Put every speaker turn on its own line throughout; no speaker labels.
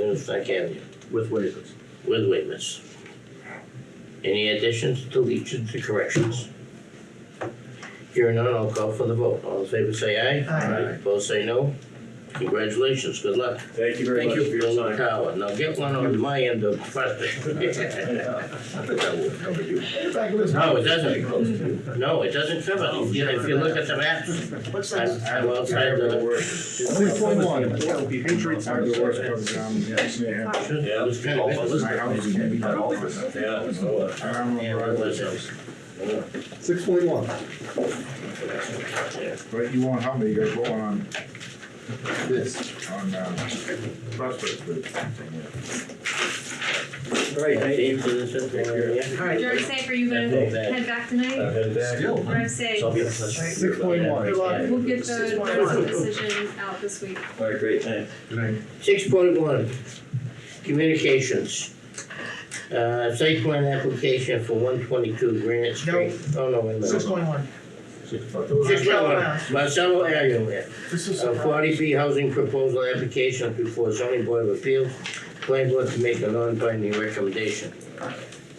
if I can,
with waivers.
with waivers. Any additions, deletions, or corrections? Hearing none, I'll call for the vote. All in favor, say aye.
Aye.
Opposed, say no. Congratulations, good luck.
Thank you very
Thank
much
you.
for your
Build a
time.
tower. Now get one on my end of Prospect. No, it doesn't. No, it doesn't cover. it. Yeah, If you look at the maps,
What's
I'm,
that?
I'm outside the,
Only for one. Patriots are the worst program. Yes, they have.
it was kind of, it was,
My house can't be done all of us.
Yeah, so, uh,
I don't
yeah,
know.
it was, uh,
Six point one.
But you won't help me, you guys go on,
Yes.
on, uh, prospect with something, yeah.
all right, thank you.
Dave did this up there, yeah.
All right.
Jerry Safer, you
Yeah, go
gonna
back.
head back tonight?
Still.
Drive safe.
Uh, So I'll be in touch.
Six point one.
Good luck.
We'll get the
Six point
notice
one.
of decision out this week.
All right, great, thanks.
Six point one, communications. Uh, site plan application for one twenty-two Granite Street. Oh, no, wait a
Six
minute.
point one.
Six point one, Marcelo Aguirre,
This is.
a forty B housing proposal application before zoning board of appeals. Planning board to make a non-binding recommendation.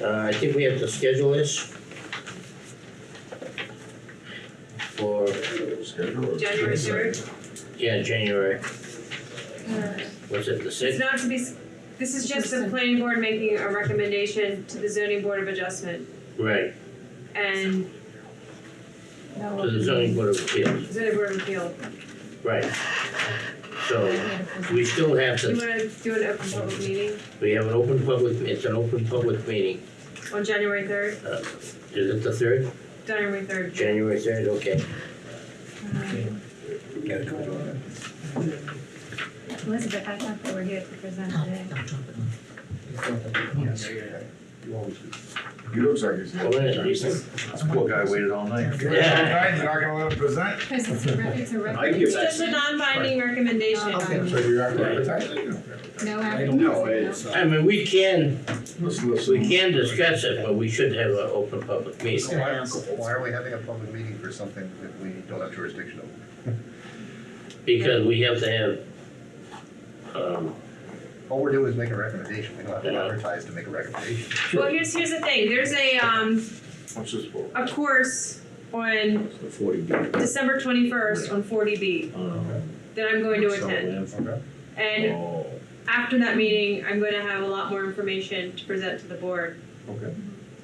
Uh, I think we have to schedule this. For,
January third.
yeah, January, was it the
It's
sixth?
not to be, s- this is just the planning board making a recommendation to the zoning board of adjustment
Right,
and
to the zoning board of appeals,
zoning board of appeal.
right. So, we still have
Do you
to,
wanna do an open public meeting
we have an open public, it's an open public meeting.
on January third?
Is it the third?
January third.
January third, okay.
Elizabeth, I thought they were here to present today.
He looks like he's.
Well, then, at least-
Poor guy waited all night.
Give us some time, you're not gonna let him present?
Because it's a re- it's a
I can
record.
get
It's
back
just
to
a
you.
non-binding recommendation.
Okay.
So you're not gonna present?
No
I
advertising.
don't know,
no.
it's,
I
uh,
mean, we can,
Let's listen.
we can discuss it, but we should have an open public
Just
meeting.
gonna ask.
Why are we having a public meeting for something that we don't have jurisdiction over?
Because we have to have, um,
All we're doing is making a recommendation, we don't have to advertise to make a recommendation.
Well, here's, here's the thing, there's a, um,
What's this for?
a course on
Forty B.
December twenty-first on forty B
um,
that I'm going to attend. And
Oh,
after that meeting, I'm gonna have a lot more information to present to the board.
Okay.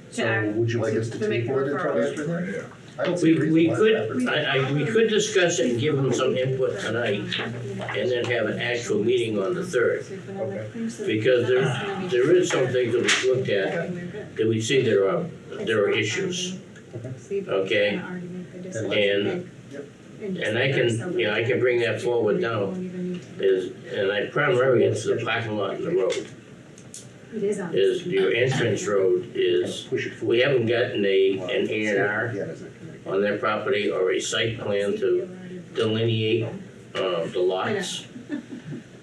To
So
act,
would you like us
to-
to
to make
take forward
the
and try to
referral.
answer that?
Yeah.
I don't see
we,
a reason
we
why it's
could,
advertised.
I, I, we could discuss it and give them some input tonight and then have an actual meeting on the third.
Okay.
Because there, there is some things that we looked at, that we see there are, there are issues, okay? And, and I can, you know, I can bring that forward now, is, and I primarily, it's the parking lot and the road,
It is on.
is your entrance road is,
Push it forward.
we haven't gotten a, an A and R
Yeah, there's a committee.
on their property or a site plan to delineate, uh, the lots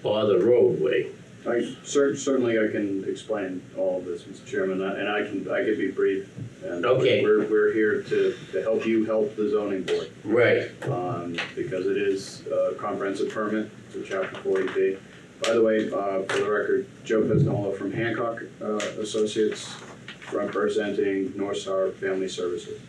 or the roadway.
I cer- certainly I can explain all of this, Mr. Chairman, and I can, I can be brief. And
Okay.
We're, we're here to, to help you help the zoning board,
Right,
um, because it is a comprehensive permit, to chapter forty B. By the way, uh, for the record, Joe Pesnola from Hancock, uh, Associates, representing North Star Family Services.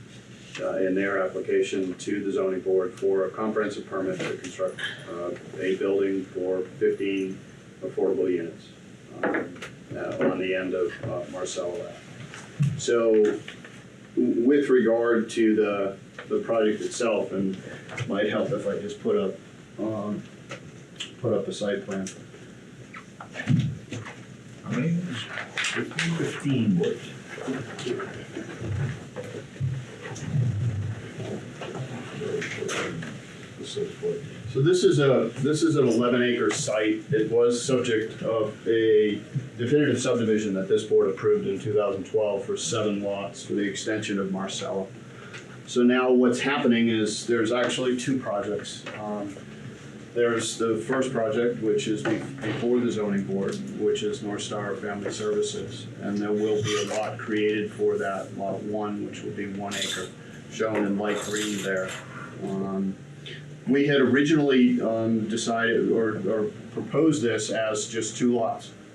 Uh, in their application to the zoning board for a comprehensive permit to construct, uh, a building for fifteen affordable units um, uh, on the end of uh, Marcelo Ave. So w- with regard to the, the project itself, and might help if I just put up, um, put up a site plan.
How many? Fifteen. This is what?
So this is a, this is an eleven acre site. It was subject of a definitive subdivision that this board approved in two thousand twelve for seven lots for the extension of Marcella. So now what's happening is there's actually two projects. Um, There's the first project, which is be- before the zoning board, which is North Star Family Services. And there will be a lot created for that, lot one, which will be one acre, shown in light green there. Um, we had originally um, decided or, or proposed this as just two lots.